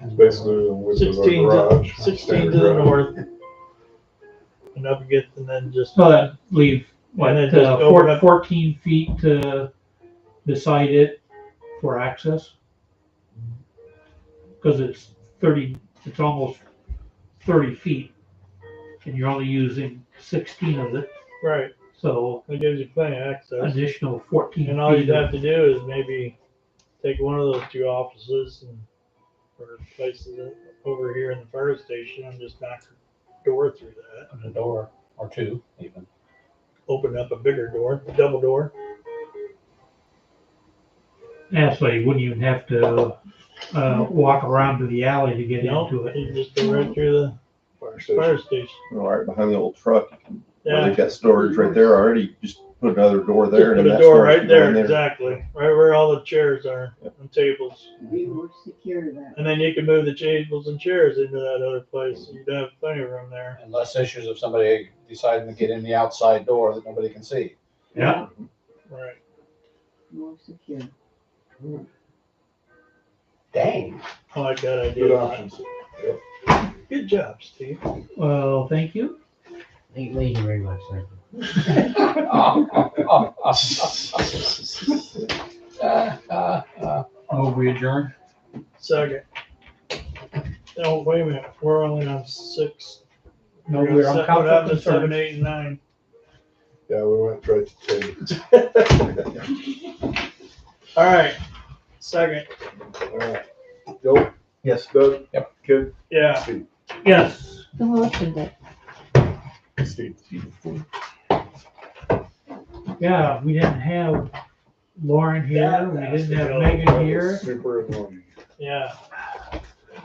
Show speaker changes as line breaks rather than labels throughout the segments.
It's basically the width of our
16 to,
garage.
16
standard
to the
garage.
north. And up against, and then just,
So that leave, what,
And then
uh,
just open
four-
up-
fourteen feet to beside it for access? Cause it's thirty, it's almost thirty feet, and you're only using sixteen of it,
right,
so
that gives you plenty of access.
additional fourteen
And all
feet
you'd
of
have to do is maybe take one of those two offices and, or places over here in the fire station and just knock a door through that.
Put a door or two even.
Open up a bigger door, double door.
Actually, you wouldn't even have to, uh, walk around to the alley to get
Mm-hmm. No,
into it.
you just go right through the
Fire station.
fire station.
Right behind the old truck, where
Yeah,
they've got storage right there already, just put another door
just
there. and
put a
that
door
storage
right
can go in
there, exactly, right where all the chairs are and tables.
We were secure that.
And then you can move the tables and chairs into that other place. You'd have plenty of room there.
Unless issues of somebody deciding to get in the outside door that nobody can see.
Yeah.
Right.
More secure.
Dang.
I like that
Good
idea.
options.
Good job, Steve.
Well, thank you.
Thank thank you very much, sir.
Oh, we adjourn?
Second. No, wait a minute. We're only on six.
No, Oh, we're on
Set- what happened
conflict
to
of
Seven,
service.
eight, and nine.
Yeah, we went right to ten.
All right. Second.
All right. Joe?
Yes.
Doug?
Yep.
Ken?
Yeah.
Steve?
Yes.
Who opened it?
Steve.
Yeah, we didn't have Lauren here, we didn't have Megan here,
Super annoying.
Yeah.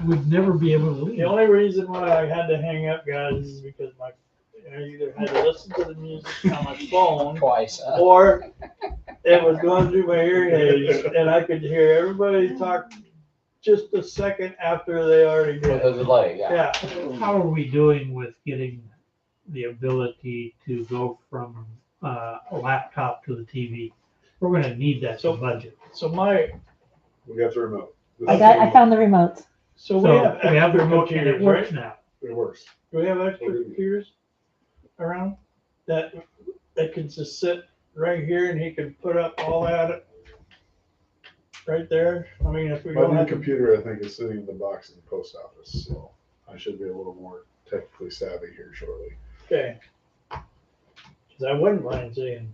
we'd never be able
The
to leave.
only reason why I had to hang up, guys, is because my, I either had to listen to the music on my phone
Twice. huh?
or it was going through my earwaves and I could hear everybody talk just a second after they already
With the
did.
delay, yeah.
Yeah,
How are we doing with getting the ability to go from, uh, a laptop to the TV? We're gonna need that
So-
to budget.
so my,
We got the remote. This
I got, I
is-
found the remote.
so
So
we have
we have the
extra
remote and it
computers, right?
works now.
It works.
Do we have extra computers around that, that could just sit right here and he could put up all that right there? I mean, if we
My
don't
new
have, to-
computer, I think, is sitting in the box in the post office, so I should be a little more technically savvy here shortly.
okay. 'Cause I wouldn't mind seeing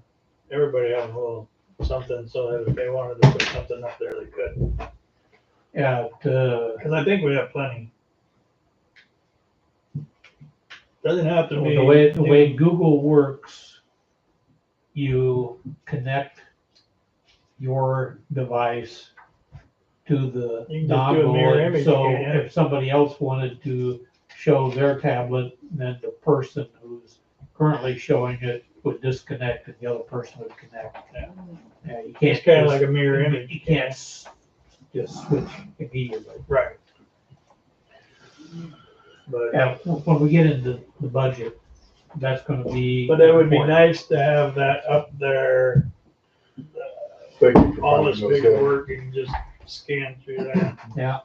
everybody have a little something so that if they wanted to put something up there, they could.
Yeah, uh,
Because I think we have plenty. Doesn't have to be.
the way, the way Google works, you connect your device to the
You can just do a mirror
dongle.
image,
and So
yeah.
if somebody else wanted to show their tablet, then the person who's currently showing it would disconnect and the other person would connect. Yeah, you can't.
It's kind of
just-
like a mirror image.
You can't s- just switch immediately.
Right. But,
Yeah, when we get into the budget, that's gonna be.
but it would be
important.
nice to have that up there,
Thank you for
all
finding
this
those
big
guys.
work and just scan through that.
Yeah.